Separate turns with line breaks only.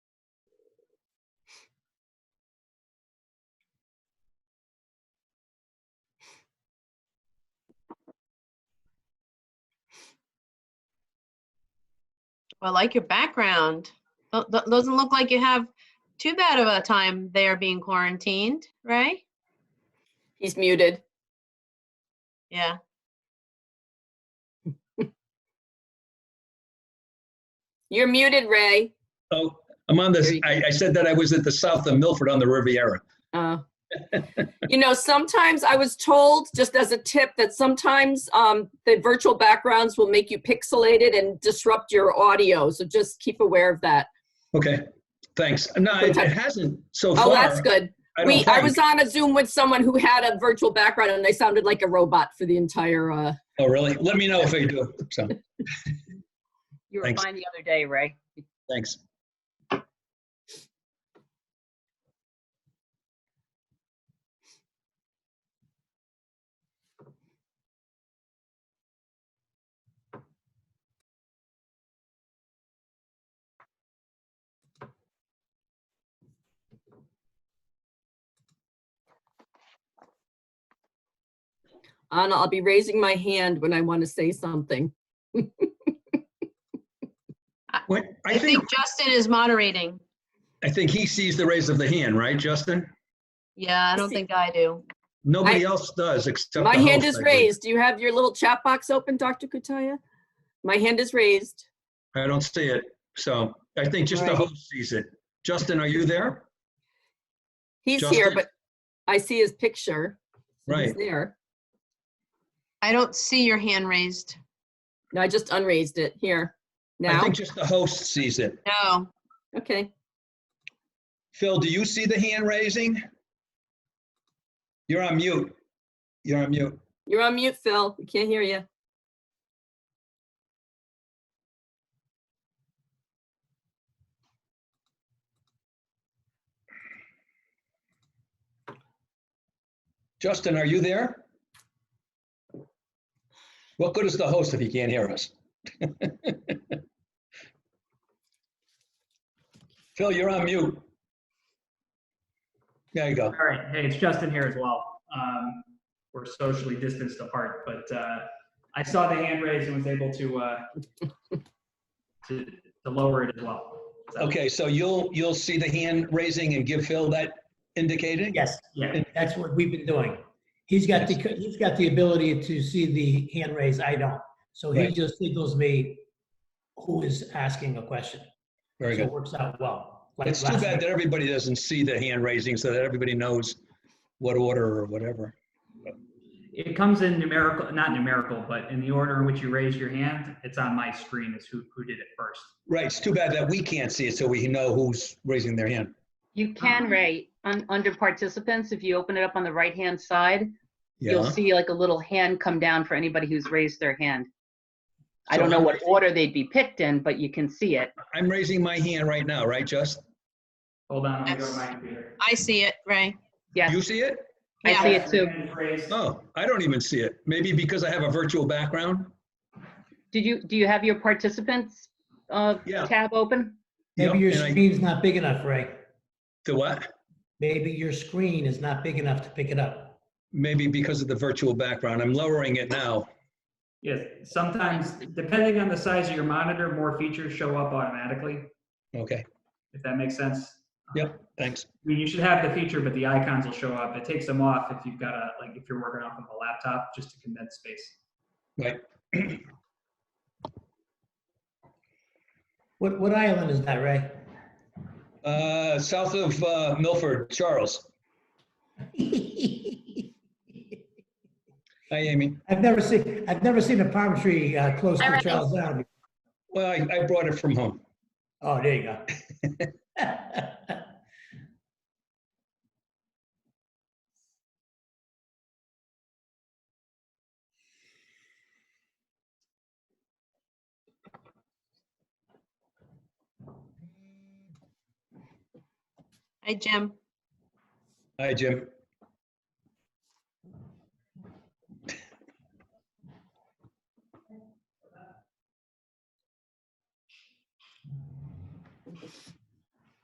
I like your background. Th- th- Doesn't look like you have too bad of a time there being quarantined, right?
He's muted.
Yeah.
You're muted, Ray.
Oh, I'm on this,
There you
I, I said that I was at the south of Milford on the Riviera.
Uh, you know, sometimes I was told, just as a tip, that sometimes um, the virtual backgrounds will make you pixelated and disrupt your audio. So just keep aware of that.
Okay, thanks. No, it it hasn't so far.
Oh, that's good.
I don't
We, I
think.
was on a Zoom with someone who had a virtual background and they sounded like a robot for the entire. Uh,
Oh, really? Let me know if I do. So,
You were
Thanks.
fine the other day, Ray.
thanks.
Anna, I'll be raising my hand when I want to say something.
What, I
I
think,
think Justin is moderating.
I think he sees the raise of the hand, right, Justin?
Yeah, I don't
see.
think I do.
Nobody else does except.
My
the
hand
host,
is
I believe.
raised. Do you have your little chat box open, Dr. Kutaya? My hand is raised.
I don't see it. So I think just the
Right.
host sees it. Justin, are you there?
He's here,
Justin?
but I see his picture. so He's
Right.
there.
I don't see your hand raised.
No, I just unraised it here.
I
Now,
think just the host sees it.
No,
okay.
Phil, do you see the hand raising? You're on mute. You're on mute.
You're on mute, Phil. We can't hear you.
Justin, are you there? What good is the host if he can't hear us? Phil, you're on mute. There you go.
All right, hey, it's Justin here as well. Um, we're socially distanced apart, but uh, I saw the hand raised and was able to uh, to, to lower it as well. So,
Okay, so you'll, you'll see the hand raising and give Phil that indicating?
Yes,
Yeah.
that's what we've been doing. He's got the, he's got the ability to see the hand raise, I don't. So he
Right.
just signals me who is asking a question.
Very
So it
good.
works out well. Like
It's too
last
bad
night.
that everybody doesn't see the hand raising so that everybody knows what order or whatever.
It comes in numerical, not numerical, but in the order in which you raise your hand, it's on my screen is who, who did it first.
Right, it's too bad that we can't see it so we know who's raising their hand.
You can,
Uh-huh.
Ray, un- under participants, if you open it up on the right-hand side, you'll
Yeah.
see like a little hand come down for anybody who's raised their hand. I
So
don't know
I'm
what
raising-
order they'd be picked in, but you can see it.
I'm raising my hand right now, right, Just?
Hold on, I'm going to my computer.
I see it, Ray.
Yes,
You see it?
I
Yeah.
see it too.
Hand raised.
Oh, I don't even see it. Maybe because I have a virtual background?
Did you, do you have your participants uh,
Yeah.
tab open?
Maybe your
Yep, and I-
screen's not big enough, Ray.
The what?
Maybe your screen is not big enough to pick it up.
Maybe because of the virtual background. I'm lowering it now.
Yes, sometimes, depending on the size of your monitor, more features show up automatically,
Okay,
if that makes sense.
Yep. thanks.
I mean, you should have the feature, but the icons will show up. It takes them off if you've got a, like, if you're working off of a laptop, just to condense space.
Right.
What, what island is that, Ray?
Uh, south of uh, Milford, Charles. Hi, Amy.
I've never seen, I've never seen a palm tree uh, close
Hi,
to
Ray.
Charles Island.
Well, I, I brought it from home.
Oh, there you go.
Hi, Jim.
Hi, Jim.